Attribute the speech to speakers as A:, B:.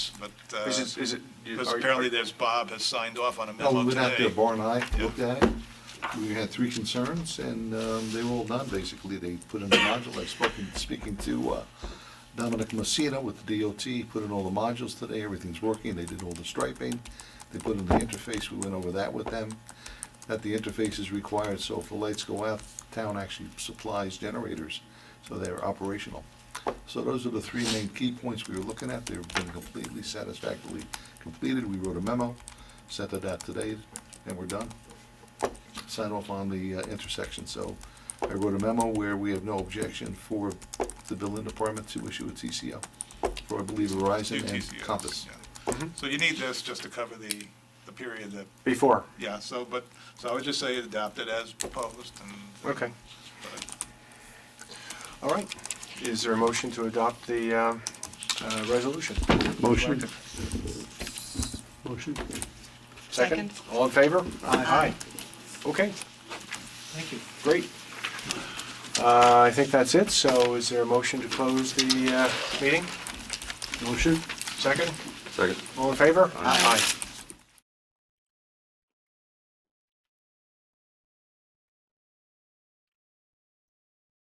A: but, uh,
B: Is it, is it?
A: because
B: are-
A: apparently there's, Bob has signed off on a
C: No,
A: memo
C: we went out there,
A: today.
C: Bar and I
A: Yeah.
C: looked at it. We had three concerns, and um, they were all done, basically. They put in the module, I've spoken, speaking to uh, Dominic Messina with the DOT, He put in all the modules today, everything's working, they did all the striping. They put in the interface, we went over that with them, that the interface is required, so if the lights go out, town actually supplies generators, so they're operational. So those are the three main key points we were looking at. They've been completely satisfactorily completed. We wrote a memo, sent it out today, and we're done. Sign off on the uh, intersection. So I wrote a memo where we have no objection for the building department to issue a TCO for, I believe,
A: New
C: Verizon and
A: TCOs,
C: Compass.
A: yeah.
B: Mm-hmm.
A: So you need this just to cover the, the period that,
B: Before,
A: yeah, so, but, so I would just say adopt it as proposed and. uh,
B: okay.
A: but-
B: All right. Is there a motion to adopt the uh, uh, resolution?
D: Motion. Motion.
B: Second?
E: Second.
B: All in favor? Aye. Okay,
D: Thank you.
B: great. Uh, I think that's it, so is there a motion to close the uh, meeting?
D: Motion.
B: Second? Second. All in favor? Aye.